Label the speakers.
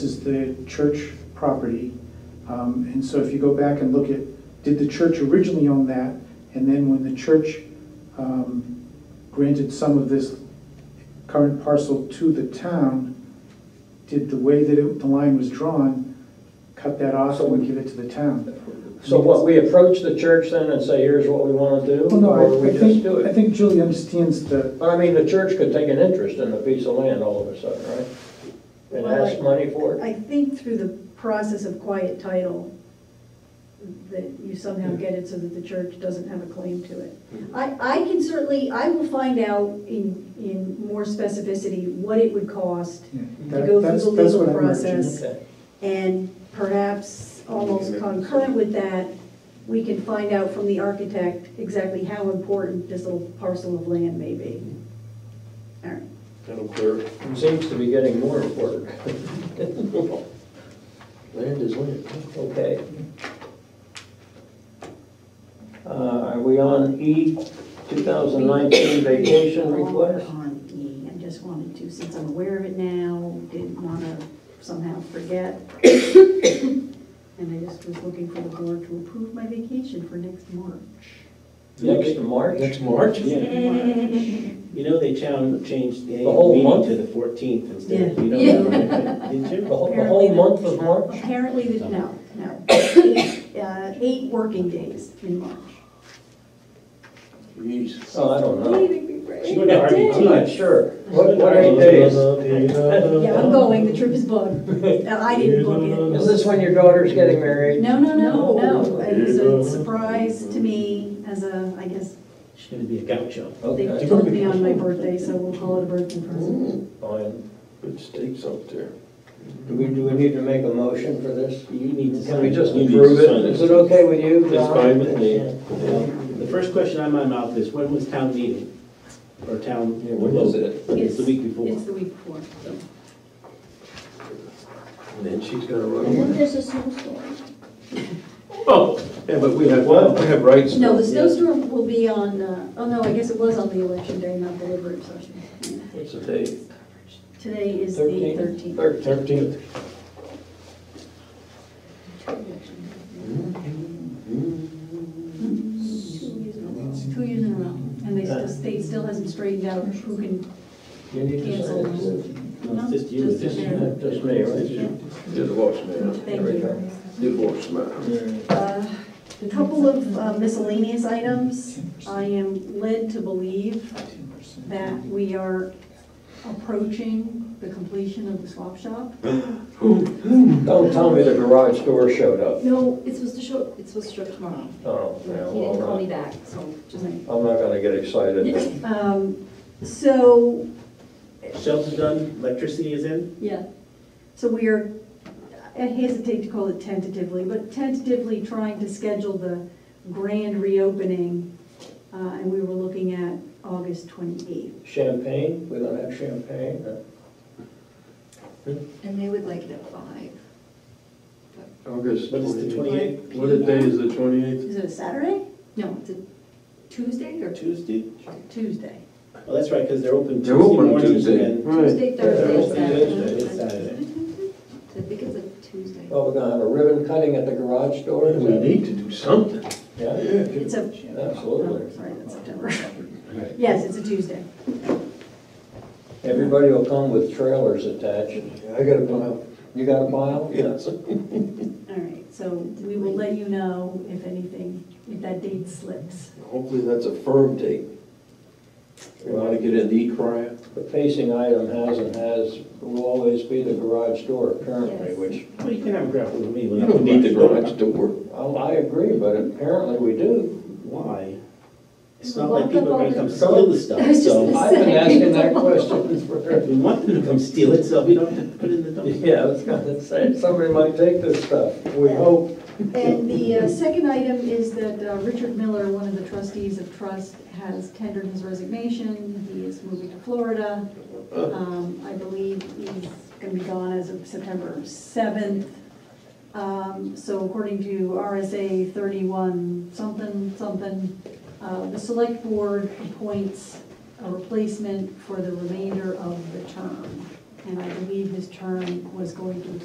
Speaker 1: This is the church property. Um, And so if you go back and look at, did the church originally own that? And then when the church um, granted some of this current parcel to the town, did the way that it- the line was drawn, cut that off and would give it to the town?
Speaker 2: So what, we approach the church then and say, here's what we want to do?
Speaker 1: Well, no,
Speaker 2: Or
Speaker 1: I-
Speaker 2: we
Speaker 1: I
Speaker 2: just
Speaker 1: think,
Speaker 2: do
Speaker 1: I
Speaker 2: it?
Speaker 1: think Julie understands the,
Speaker 2: But I mean, the church could take an interest in the piece of land all of a sudden, right? And
Speaker 3: Well,
Speaker 2: ask
Speaker 3: I-
Speaker 2: money for it?
Speaker 3: I think through the process of quiet title, that you somehow get it so that the church doesn't have a claim to it. I, I can certainly, I will find out in, in more specificity what it would cost
Speaker 1: yeah,
Speaker 3: to
Speaker 1: that-
Speaker 3: go
Speaker 1: that's,
Speaker 3: through the
Speaker 1: that's what
Speaker 3: legal
Speaker 1: I'm urging.
Speaker 3: process.
Speaker 2: Okay.
Speaker 3: And perhaps almost concurrent with that, we can find out from the architect exactly how important this little parcel of land may be. All right,
Speaker 4: Madam Clerk?
Speaker 2: Seems to be getting more important.
Speaker 4: Land is land.
Speaker 2: Okay. Uh, Are we on E, 2019 vacation request?
Speaker 3: On E, I just wanted to, since I'm aware of it now, didn't want to somehow forget. And I just was looking for the board to approve my vacation for next March.
Speaker 2: Next March?
Speaker 4: Next March?
Speaker 5: Yeah, you know they chan- changed the
Speaker 2: whole
Speaker 5: annual meeting
Speaker 2: month?
Speaker 5: to the fourteenth instead.
Speaker 3: Yeah.
Speaker 5: You
Speaker 3: Yeah.
Speaker 5: know that, didn't
Speaker 2: The
Speaker 5: you?
Speaker 2: whole, the whole month of March?
Speaker 3: Apparently, the- no, no, Eight, uh, eight working days in March.
Speaker 4: Jeez.
Speaker 2: Oh, I don't know.
Speaker 5: She went to
Speaker 2: I'm
Speaker 5: RBT.
Speaker 2: not sure. What, what eight days?
Speaker 3: Yeah, I'm going, the trip is booked. Uh, I didn't book it.
Speaker 2: Is this when your daughter's getting married?
Speaker 3: No, no, no, no. It was a surprise to me as a, I guess,
Speaker 5: She's gonna be a gaucho.
Speaker 3: they
Speaker 2: Okay,
Speaker 3: told me on my birthday, so we'll call it a birthday present.
Speaker 2: fine.
Speaker 4: Good steaks up there.
Speaker 2: Do we, do we need to make a motion for this?
Speaker 5: You need to sign.
Speaker 2: Can we just
Speaker 5: You need to
Speaker 2: approve it?
Speaker 5: sign
Speaker 2: Is it okay with you, John?
Speaker 5: It's fine with me.
Speaker 2: Yeah.
Speaker 5: The first question out of my mouth is, when was town meeting? Or town?
Speaker 4: Yeah, when was it?
Speaker 5: It's the week before.
Speaker 3: It's the week before.
Speaker 4: And then she's gonna run
Speaker 6: And then
Speaker 4: away.
Speaker 6: there's a snowstorm.
Speaker 5: Oh, yeah, but we have
Speaker 4: Well,
Speaker 5: one.
Speaker 4: we have rights.
Speaker 3: No, the snowstorm will be on, uh, oh no, I guess it was on the election day, not deliberative session.
Speaker 2: What's the date?
Speaker 3: Today is the
Speaker 2: 13th?
Speaker 3: 13th.
Speaker 2: Thirteenth.
Speaker 4: Thirteenth.
Speaker 3: Two years in a row. And they still, state still hasn't straightened out who can,
Speaker 2: You need to sign it. too.
Speaker 3: no,
Speaker 5: It's just you,
Speaker 3: just
Speaker 5: it's
Speaker 3: the
Speaker 5: just
Speaker 3: chair.
Speaker 2: Just me, right?
Speaker 4: You're the boss man.
Speaker 3: Thank you.
Speaker 4: You're the boss man.
Speaker 3: Uh, A couple of uh, miscellaneous items. I am led to believe that we are approaching the completion of the swap shop.
Speaker 2: Don't tell me the garage door showed up.
Speaker 7: No, it's supposed to show, it's supposed to show up tomorrow.
Speaker 2: Oh,
Speaker 7: He
Speaker 2: yeah,
Speaker 7: didn't call
Speaker 2: well,
Speaker 7: me back, so just.
Speaker 2: I'm not gonna get excited.
Speaker 3: Um, So,
Speaker 5: Shelter done, electricity is in.
Speaker 3: yeah, so we are, I hesitate to call it tentatively, but tentatively trying to schedule the grand reopening, uh, and we were looking at August 28th.
Speaker 2: Champagne? We don't have champagne? No.
Speaker 7: And they would like it at five.
Speaker 4: August
Speaker 5: What is the
Speaker 4: twenty-eighth.
Speaker 5: 28th?
Speaker 4: What a day is the twenty-eighth?
Speaker 3: Is it a Saturday?
Speaker 7: No, it's a Tuesday or
Speaker 5: Tuesday?
Speaker 3: Tuesday.
Speaker 5: Oh, that's right, because they're open Tuesday
Speaker 4: They're open
Speaker 5: mornings
Speaker 4: Tuesday.
Speaker 5: and
Speaker 7: Tuesday,
Speaker 5: Thursday,
Speaker 7: Thursday,
Speaker 5: Thursday,
Speaker 7: Saturday.
Speaker 5: it's Saturday.
Speaker 7: I think it's a Tuesday.
Speaker 2: Well, we're gonna have a ribbon cutting at the garage door? is
Speaker 4: We
Speaker 2: that-
Speaker 4: need to do something.
Speaker 2: Yeah,
Speaker 3: It's a
Speaker 2: absolutely.
Speaker 3: Oh, Sorry, that's September. Yes, it's a Tuesday.
Speaker 2: Everybody will come with trailers attached.
Speaker 4: I got a pile.
Speaker 2: You got a mile?
Speaker 4: Yes.
Speaker 3: All right, so we will let you know if anything, if that date slips.
Speaker 4: Hopefully that's a firm date. We wanna get in the crier.
Speaker 2: The facing item has and has, will always be the garage door apparently,
Speaker 7: Yes.
Speaker 2: which,
Speaker 5: Well, you can have a grapple with me.
Speaker 4: You don't need the garage door.
Speaker 2: oh, I agree, but apparently we do.
Speaker 5: Why? It's not
Speaker 7: Lock
Speaker 5: like
Speaker 7: up
Speaker 5: people are
Speaker 7: all
Speaker 5: gonna
Speaker 7: the-
Speaker 5: come steal the stuff,
Speaker 7: I was just
Speaker 5: so.
Speaker 7: gonna
Speaker 2: I've been asking that question
Speaker 5: If
Speaker 2: for,
Speaker 5: we want them to come steal it, so we don't have to put it in the dumpster.
Speaker 2: yeah, I was gonna say, somebody might take this stuff. We hope.
Speaker 3: And the uh, second item is that uh, Richard Miller, one of the trustees of trust, has tendered his resignation. He is moving to Florida. Um, I believe he's going to be gone as of September 7th. Um, So according to RSA 31 something something, uh, the select board appoints a replacement for the remainder of the term. And I believe his term was going to